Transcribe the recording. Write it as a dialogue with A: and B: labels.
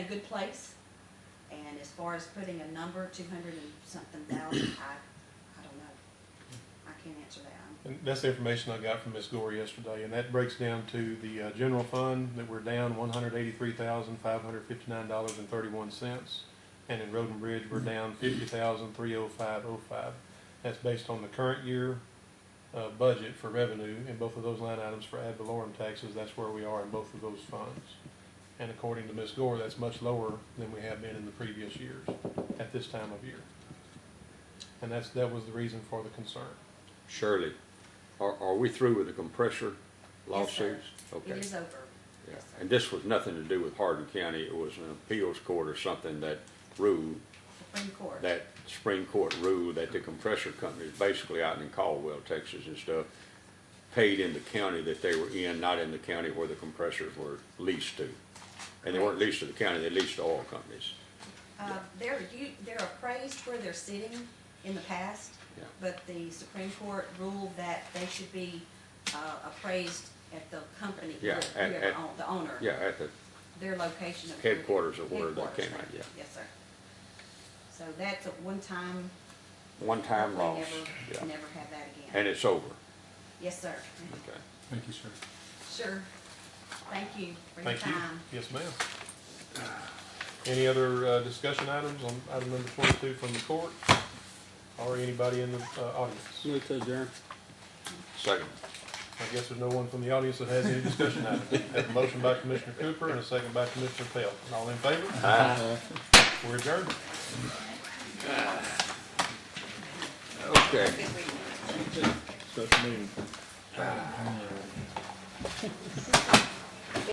A: good place. And as far as putting a number, two hundred and something thousand, I, I don't know. I can't answer that. I'm-
B: And that's the information I got from Ms. Gore yesterday, and that breaks down to the uh, general fund, that we're down one hundred eighty-three thousand, five hundred fifty-nine dollars and thirty-one cents. And in Road and Bridge, we're down fifty thousand, three oh five oh five. That's based on the current year, uh, budget for revenue, and both of those line items for ad valorem taxes, that's where we are in both of those funds. And according to Ms. Gore, that's much lower than we have been in the previous years, at this time of year. And that's, that was the reason for the concern.
C: Shirley, are, are we through with the compressor
A: Yes, sir.
C: lawsuits? Okay.
A: It is over.
C: Yeah, and this was nothing to do with Hardin County, it was an appeals court or something that ruled,
A: Supreme Court.
C: that Supreme Court ruled that the compressor companies, basically out in Caldwell, Texas and stuff, paid in the county that they were in, not in the county where the compressors were leased to. And they weren't leased to the county, they leased to oil companies.
A: Uh, they're, u- they're appraised where they're sitting in the past,
C: Yeah.
A: but the Supreme Court ruled that they should be, uh, appraised at the company,
C: Yeah,
A: who-
C: at-
A: whoever
C: at-
A: own- the owner.
C: Yeah, at the,
A: Their location of.
C: Headquarters of where they
A: Headquarters,
C: came out, yeah.
A: Yes, sir. So that's a one-time.
C: one time
A: hopefully
C: loss,
A: Never,
C: yeah,
A: never have that again.
C: and it's over,
A: Yes, sir.
C: okay.
D: Thank you, sir.
A: Sure. Thank you for your
B: Thank you.
A: time.
B: Yes, ma'am. Any other uh, discussion items on item number twenty-two from the court? Or anybody in the uh, audience?
D: Move to adjourn.
C: Second,
B: I guess there's no one from the audience that has any discussion items. Have a motion by Commissioner Cooper and a second by Commissioner Pelt. All in favor? We're adjourned.
C: okay.
D: Special meeting.